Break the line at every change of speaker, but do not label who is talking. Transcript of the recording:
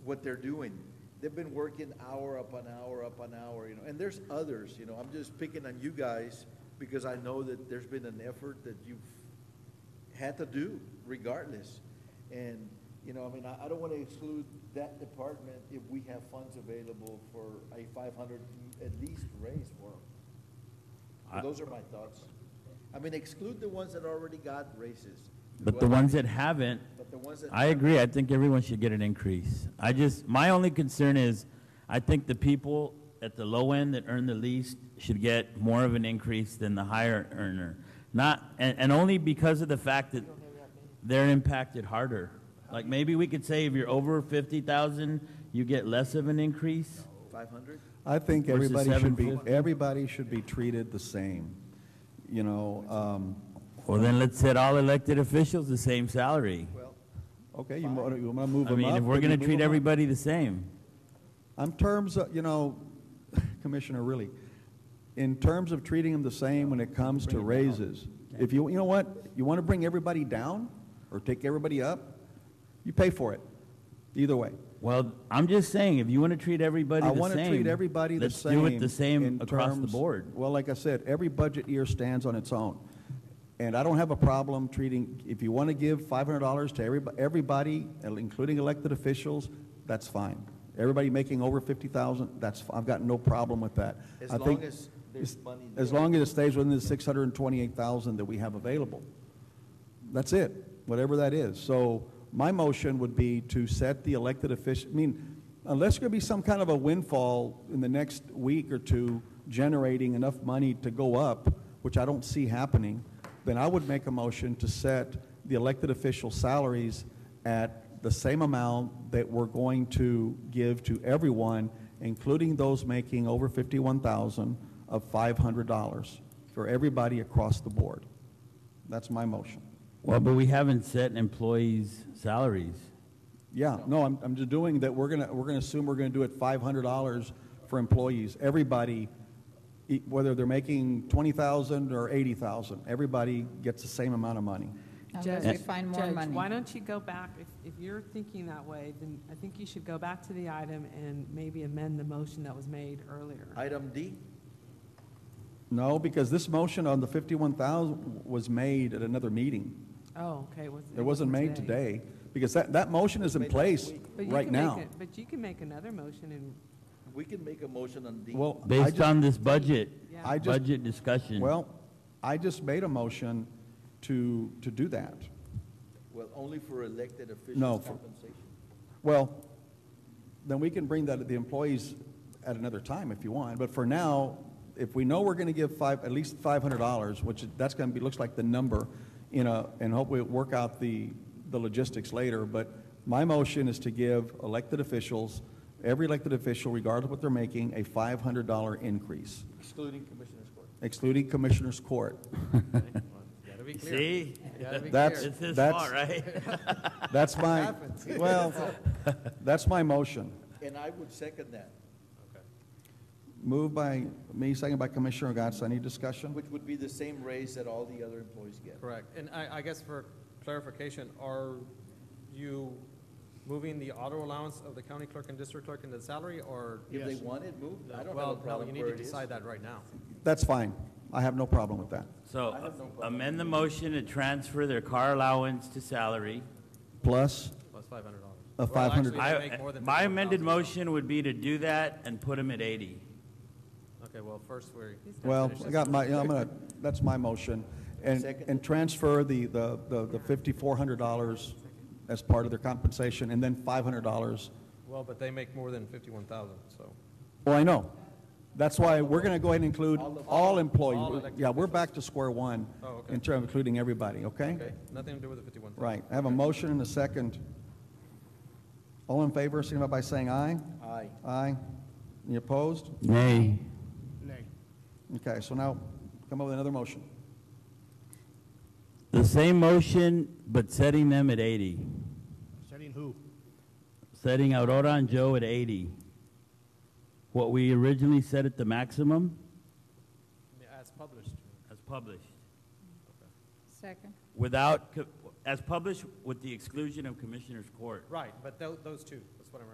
what they're doing. They've been working hour upon hour upon hour, you know, and there's others, you know, I'm just picking on you guys because I know that there's been an effort that you've had to do regardless. And, you know, I mean, I, I don't wanna exclude that department if we have funds available for a five hundred at least raise for them.
I-
Those are my thoughts. I mean, exclude the ones that already got raises.
But the ones that haven't,
But the ones that.
I agree, I think everyone should get an increase. I just, my only concern is, I think the people at the low end that earn the least should get more of an increase than the higher earner. Not, and, and only because of the fact that they're impacted harder. Like, maybe we could say if you're over fifty thousand, you get less of an increase?
Five hundred?
I think
Versus
everybody should be,
750.
everybody should be treated the same, you know, um,
Well, then let's set all elected officials the same salary.
Well,
okay, you wanna, you wanna move
I
them up?
mean, if we're
then you
gonna
move
treat
'em up.
everybody the same.
On terms of, you know, Commissioner, really, in terms of treating them the same when it comes to raises, if you, you know what, you wanna bring everybody down or take everybody up, you pay for it, either way.
Well, I'm just saying, if you want to treat everybody
I
the same.
want to treat everybody the same.
Let's do it the same
in
across the
terms-
board.
Well, like I said, every budget year stands on its own. And I don't have a problem treating, if you want to give $500 to everyb- everybody, including elected officials, that's fine. Everybody making over 50,000, that's, f- I've got no problem with that.
As
I think-
long as there's money
As
there.
long as it stays within the 628,000 that we have available. That's it, whatever that is. So my motion would be to set the elected official, I mean, unless there be some kind of a windfall in the next week or two generating enough money to go up, which I don't see happening, then I would make a motion to set the elected official salaries at the same amount that we're going to give to everyone, including those making over 51,000 of $500 for everybody across the board. That's my motion.
Well, but we haven't set employees' salaries.
Yeah, no, I'm, I'm just doing that, we're gonna, we're gonna assume we're gonna do it five hundred dollars for employees. Everybody, e- whether they're making twenty thousand or eighty thousand, everybody gets the same amount of money.
Unless we
Judge-
find more
Judge,
money.
why don't you go back, if, if you're thinking that way, then I think you should go back to the item and maybe amend the motion that was made earlier.
item D,
No, because this motion on the fifty-one thousand was made at another meeting.
Oh, okay, was.
It wasn't made today, because that, that motion is in place
But you
right
can make
now.
it- But you can make another motion and,
we can make a motion on D.
Well, I
Based
just,
on this budget,
Yeah.
I just,
budget discussion.
well, I just made a motion to, to do that.
Well, only for elected
No,
officials
for-
compensation.
Well, then we can bring that, the employees at another time if you want, but for now, if we know we're gonna give five, at least five hundred dollars, which that's gonna be, looks like the number, you know, and hopefully we'll work out the, the logistics later, but my motion is to give elected officials, every elected official, regardless of what they're making, a five hundred dollar increase,
Excluding Commissioner's Court.
excluding Commissioner's Court.
Gotta be clear.
See?
Gotta be
That's-
clear.
It's his
That's-
fault, right?
That's my, well, that's my motion.
And I would second that,
Moved by me, second by Commissioner Gatz. Any discussion?
which would be the same raise that all the other employees get.
Correct. And I, I guess for clarification, are you moving the auto allowance of the county clerk and district clerk into the salary, or?
If they want it moved, I don't have a
Well, no, you
problem
need
where
to
it is.
decide that right now.
That's fine. I have no problem with that.
So
I have no problem.
amend the motion to transfer their car allowance to salary.
Plus,
Plus five hundred dollars.
Uh, 500.
I- My amended motion would be to do that and put them at eighty.
Okay, well, first we're.
well, I got my, I'm gonna, that's my motion. And,
Second.
and transfer the, the, the the fifty-four hundred dollars as part of their compensation, and then five hundred dollars.
Well, but they make more than fifty-one thousand, so.
Well, I know. That's why we're gonna go ahead and include
All of-
all
all
employees.
elected
Yeah, we're back to square one.
Oh, okay.
In terms of including everybody, okay?
Okay, nothing to do with the fifty-one thousand.
Right. I have a motion and a second. All in favor, signify by saying aye.
Aye.
Aye. Any opposed?
Nay.
Okay, so now come up with another motion.
The same motion, but setting them at eighty.
Setting who?
setting Aurora and Joe at 80. What we originally set at the maximum?
As published.
As published.
Second.
Without, co- as published with the exclusion of Commissioners Court.
Right, but tho- those two.